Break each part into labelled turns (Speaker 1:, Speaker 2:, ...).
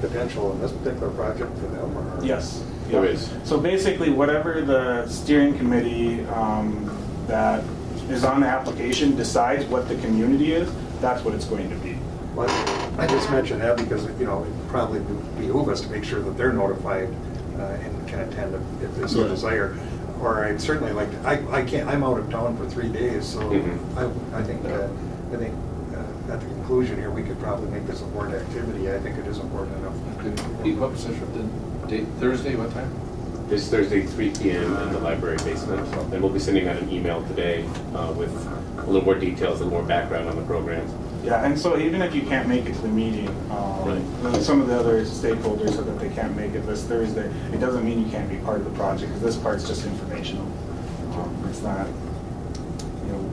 Speaker 1: potential in this particular project for them, or?
Speaker 2: Yes.
Speaker 3: There
Speaker 2: Yep.
Speaker 3: is.
Speaker 2: So basically, whatever the steering committee um, that is on the application decides what the community is, that's what it's going to be.
Speaker 1: But I just mentioned that because, you know, it probably would behoove us to make sure that they're notified uh, and can attend if- if they so
Speaker 3: Yeah.
Speaker 1: desire. Or I'd certainly like, to- I, I can't, I'm out of town for three days, so
Speaker 3: Mhm.
Speaker 1: I, I think, uh, I think uh, at the conclusion here, we could probably make this a board activity. I think it is important
Speaker 4: Pete,
Speaker 1: enough.
Speaker 4: what position, the date, Thursday, what time?
Speaker 3: This Thursday, three PM in the library basement. And we'll be sending out an email today uh, with a little more details and more background on the program.
Speaker 2: Yeah, and so even if you can't make it to the meeting, um,
Speaker 3: Right.
Speaker 2: uh, some of the other stakeholders said that they can't make it this Thursday. It doesn't mean you can't be part of the project, because this part's just informational. Um, It's not, you know,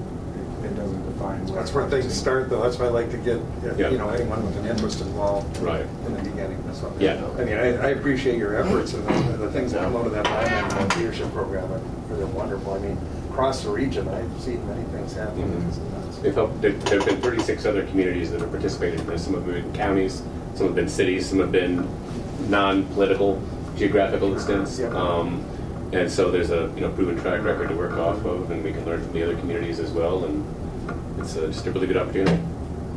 Speaker 2: it- it doesn't define. what-
Speaker 1: That's where things start, though. That's why I like to get, uh,
Speaker 3: Yeah.
Speaker 1: you know, anyone with an interest involved.
Speaker 3: Right.
Speaker 1: In the beginning, that's all.
Speaker 3: Yeah.
Speaker 1: I mean, I, I appreciate your efforts and the- the things that come out of that Lyman leadership program are they're wonderful. I mean, across the region, I've seen many things happen.
Speaker 3: Mhm.
Speaker 1: It's nuts.
Speaker 3: They've helped, there there have been 36 other communities that have participated in this. Some have been counties, some have been cities, some have been non-political geographical extents.
Speaker 1: Yep.
Speaker 3: Um, And so there's a, you know, proven track record to work off of, and we can learn from the other communities as well. And it's uh, just a really good opportunity,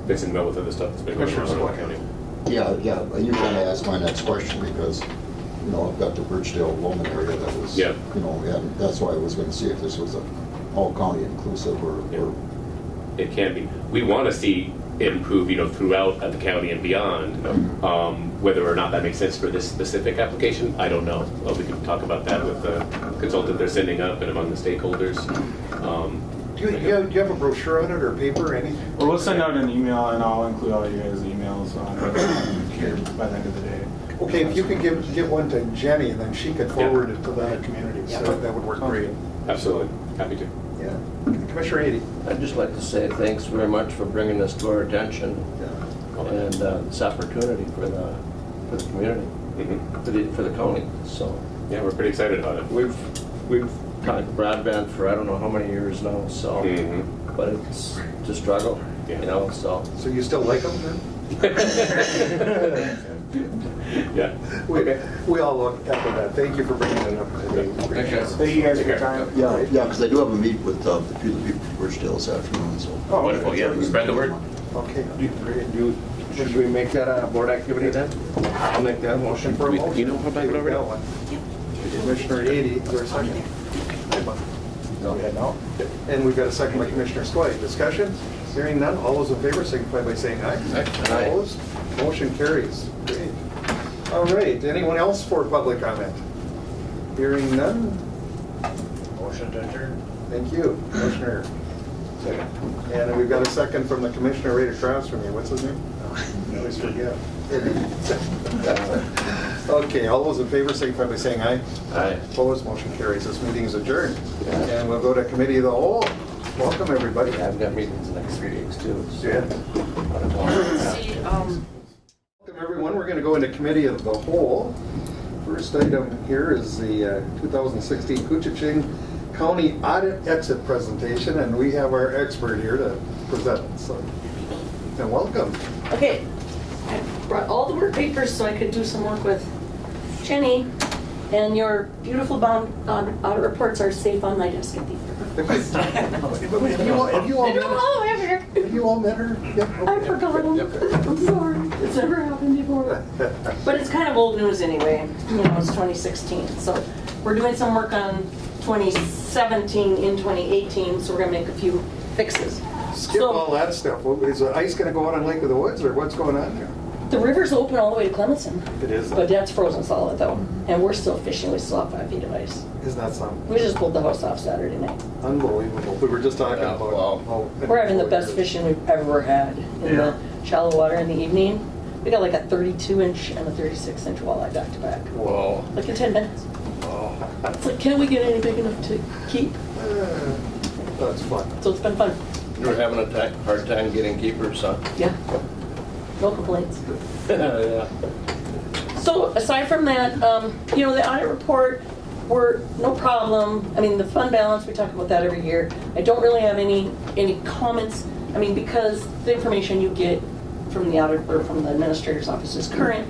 Speaker 3: fits in well with other stuff that's been going on in
Speaker 1: Commissioner
Speaker 3: Ottawa
Speaker 1: Spillane.
Speaker 3: County.
Speaker 5: Yeah, yeah, but you kind of asked my next question because, you know, I've got the Birchdale Roman area that was,
Speaker 3: Yeah.
Speaker 5: you know, and that's why I was going to see if this was a all county inclusive or,
Speaker 3: Yeah.
Speaker 5: or
Speaker 3: it can be. We want to see it improve, you know, throughout the county and beyond.
Speaker 1: Mm-hmm.
Speaker 3: Um, whether or not that makes sense for this specific application, I don't know. Well, we can talk about that with the consultant they're sending up and among the stakeholders. Um,
Speaker 1: Do you, you have- do you have a brochure on it or paper or anything?
Speaker 2: Well, we'll send out an email, and I'll include all you guys' emails on it here by the end of the day.
Speaker 1: Okay, if you could give, give one to Jenny, then she could forward it to the other communities. So that would work great.
Speaker 3: Absolutely, happy to.
Speaker 1: Yeah. Commissioner Ady?
Speaker 6: I'd just like to say thanks very much for bringing this to our attention and uh, this opportunity for the, for the community,
Speaker 3: Mhm.
Speaker 6: for the, for the county, so.
Speaker 3: Yeah, we're pretty excited about it.
Speaker 6: We've, we've had broadband for I don't know how many years now, so,
Speaker 3: Mhm.
Speaker 6: but it's it's a struggle, you
Speaker 3: Yeah.
Speaker 6: know, so.
Speaker 1: So you still like them then?
Speaker 3: Yeah.
Speaker 1: We, we all look after that. Thank you for bringing it up. today.
Speaker 4: Thank you. guys.
Speaker 2: Thank you guys for your
Speaker 3: Take care.
Speaker 2: time.
Speaker 5: Yeah, yeah, because I do have a meet with uh, the people people from Birchdale this afternoon, so.
Speaker 2: Oh,
Speaker 3: Wonderful, yeah, spread the word.
Speaker 1: Okay.
Speaker 4: Great. You- Should we make that a board activity then? I'll make that motion.
Speaker 1: For a
Speaker 3: Do we-
Speaker 1: motion.
Speaker 3: you know how back it over?
Speaker 1: That one. Commissioner Ady, is there a second? Go ahead now. And we've got a second by Commissioner Skoye. Discussion? Hearing none. All those in favor signify by saying aye.
Speaker 4: Aye.
Speaker 1: Opposed? Motion carries. Great. All right. Anyone else for public comment? Hearing none. Motion to adjourn. Thank you, Commissioner. And we've got a second from the commissioner right across from you. What's his name? I always forget. Okay, all those in favor signify by saying aye.
Speaker 6: Aye.
Speaker 1: Opposed, motion carries. This meeting is adjourned. And we'll go to committee of the whole. Welcome, everybody.
Speaker 6: Yeah, I've got meetings the next three days too, so.
Speaker 1: Yeah.
Speaker 7: See, um,
Speaker 1: Welcome, everyone. We're going to go into committee of the whole. First item here is the uh, 2016 Kuchiching County Audit Exit Presentation, and we have our expert here to present. So, and welcome.
Speaker 7: okay, I brought all the work papers so I could do some work with Jenny, and your beautiful bond, audit audit reports are safe on my desk at the.
Speaker 1: Have you all- have you all
Speaker 7: I
Speaker 1: met her?
Speaker 7: don't know, I'm here.
Speaker 1: Have you all met her? Yep.
Speaker 7: I forgot them. I'm sorry, it's never happened before. But it's kind of old news anyway, you know, it's 2016, so we're doing some work on 2017 in 2018, so we're gonna make a few fixes.
Speaker 1: Skip
Speaker 7: So-
Speaker 1: all that stuff. Well, Is the ice going to go out on Lake of the Woods, or what's going on there?
Speaker 7: The river's open all the way to Clemson.
Speaker 1: It is. Mm-hmm.
Speaker 7: But that's frozen solid though, and we're still fishing, we still have five feet of ice.
Speaker 1: Isn't that something?
Speaker 7: We just pulled the house off Saturday night.
Speaker 1: Unbelievable. We were just talking about. how-
Speaker 7: We're having the best fishing we've ever had in the shallow water in the evening. We got like a 32 inch and a 36 inch walleye back to back,
Speaker 4: Whoa.
Speaker 7: like in 10 minutes. It's like, can we get any big enough to keep?
Speaker 1: Uh, That's fun.
Speaker 7: So it's been fun,
Speaker 6: We're having a ti- hard time getting keepers, huh?
Speaker 7: yeah. No complaints.
Speaker 6: Yeah.
Speaker 7: So aside from that, um, you know, the audit report, we're, no problem. I mean, the fund balance, we talk about that every year. I don't really have any, any comments. I mean, because the information you get from the audit, or from the administrator's office is current.